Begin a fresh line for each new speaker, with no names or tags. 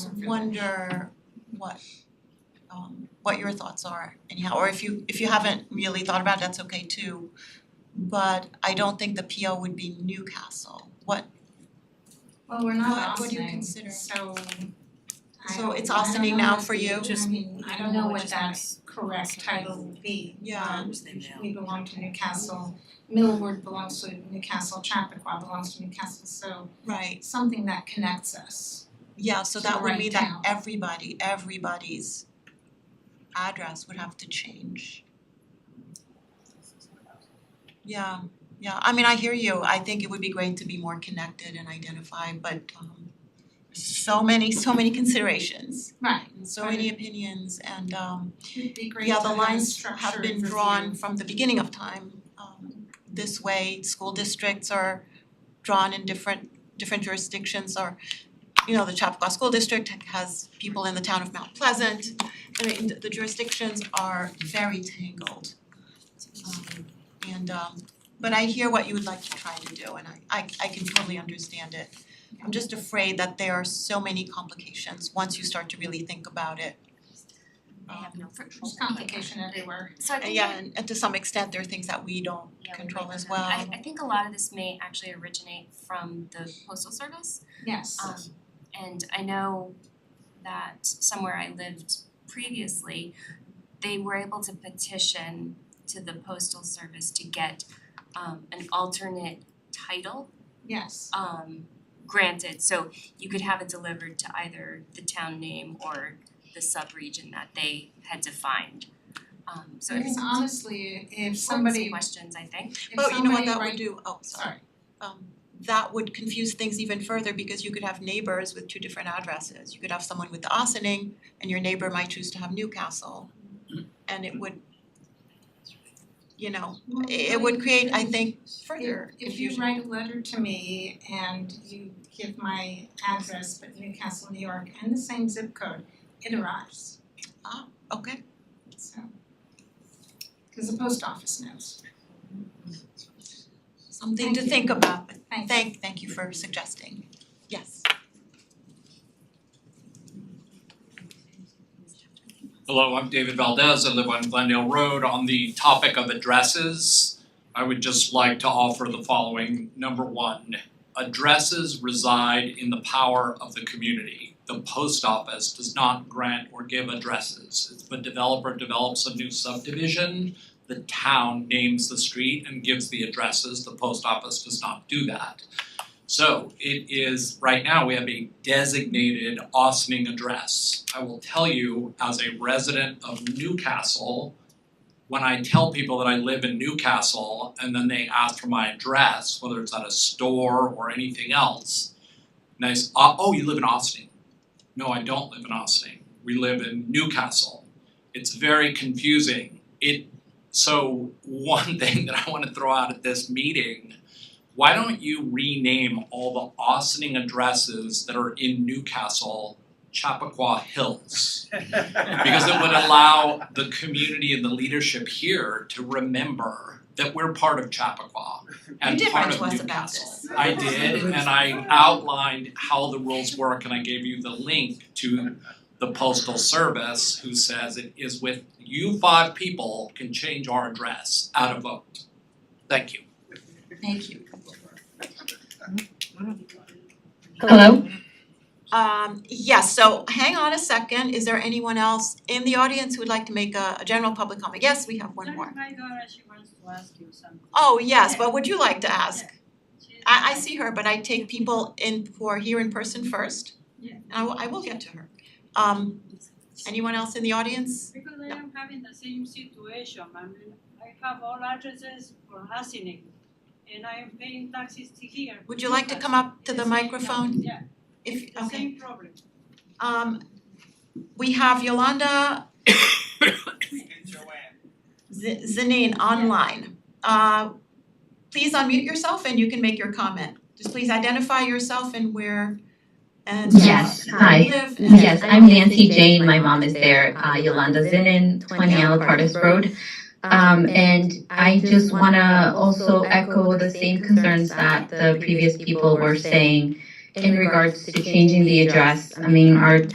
wonder what um what your thoughts are anyhow, or if you if you haven't really thought about it, that's okay too. But I don't think the PO would be Newcastle, what
Well, we're
what
not
what do you
auctioning,
consider?
so I
So
don't-
it's
I don't
auctioning
know
now
if
for
we-
you?
Just,
I mean,
I don't know what that's correct title would be.
Yeah.
Um, we belong to Newcastle, Millwood belongs to Newcastle, Chappaqua belongs to Newcastle, so
Right,
it's something that connects us.
yeah, so
To
that would
write
mean that
down.
everybody, everybody's address would have to change. Yeah, yeah, I mean, I hear you, I think it would be great to be more connected and identified, but um so many, so many considerations,
Right.
and so many opinions and um
It'd be great to
yeah, the
have a
lines have
structured
been
review.
drawn from the beginning of time. Um, This way, school districts are drawn in different different jurisdictions or, you know, the Chappaqua School District has people in the town of Mount Pleasant. I mean, the- the jurisdictions are very tangled. Um, And um, but I hear what you would like to try to do and I I I can totally understand it. I'm just afraid that there are so many complications once you start to really think about it.
They have no control.
There's complication everywhere.
So I
And
think
yeah, and and to some extent, there are things that we don't
yeah, we
control
might
as
not have-
well.
I I think a lot of this may actually originate from the postal service.
Yes.
Um and I know that somewhere I lived previously, they were able to petition to the postal service to get um an alternate title
Yes.
um granted, so you could have it delivered to either the town name or the sub-region that they had defined. Um so
I
it's
mean, honestly, if
some
somebody, if
questions, I think.
But you know
somebody
what that would
write-
do, oh, sorry,
sorry,
um that would confuse things even further because you could have neighbors with two different addresses. You could have someone with the Austining and your neighbor might choose to have Newcastle. And it would, you know,
Well,
it it
what
would
if-
create, I think, further
If if you
confusion.
write a letter to me and you give my address, but Newcastle, New York, and the same zip code, it arrives,
Okay,
so. Cause the post office knows,
something
Thank
to
you.
think about, but
thank you.
thank thank you for suggesting. Yes,
Hello, I'm David Valdez. I live on Glendale Road. On the topic of addresses, I would just like to offer the following. Number one, addresses reside in the power of the community. The post office does not grant or give addresses. If a developer develops a new subdivision, the town names the street and gives the addresses. The post office does not do that. So it is, right now, we have a designated Austining address. I will tell you, as a resident of Newcastle, when I tell people that I live in Newcastle and then they ask for my address, whether it's at a store or anything else, and I s- "Uh, oh, you live in Austin. No, I don't live in Austin. We live in Newcastle. It's very confusing. It, so one thing that I wanna throw out at this meeting why don't you rename all the Austining addresses that are in Newcastle Chappaqua Hills? Because it would allow the community and the leadership here to remember that we're part of Chappaqua
you
and
did
part
write
of Newcastle.
to us about this.
I did, and I outlined how the rules work, and I gave you the link to the postal service, who says it is with you five people can change our address out of vote. Thank you.
Thank you.
Hello?
Um yes, so hang on a second, is there anyone else in the audience who would like to make a a general public comment? Yes, we have one more.
Look, my daughter, she wants to ask you something.
Oh, yes, what would you like to ask?
She-
I I see her, but I take people in who are here in person first.
Yeah.
And I will I will get to her. Um anyone else in the audience?
Because I am having the same situation, I mean, I have all addresses for Hasinik, and I am paying taxes to here.
Would you like to come up to the microphone?
Yeah,
If
the
okay,
same problem.
um we have Yolanda Z- Zanin online. Uh please unmute yourself and you can make your comment. Just please identify yourself and where and
Yes,
where you
hi.
live and-
Yes, I'm Nancy Jane. My mom is there, uh, Yolanda Zinin, 20 Alapartis Road. Um, and I just want to also echo the same concerns that the previous people were saying in regards to changing the address. I mean, our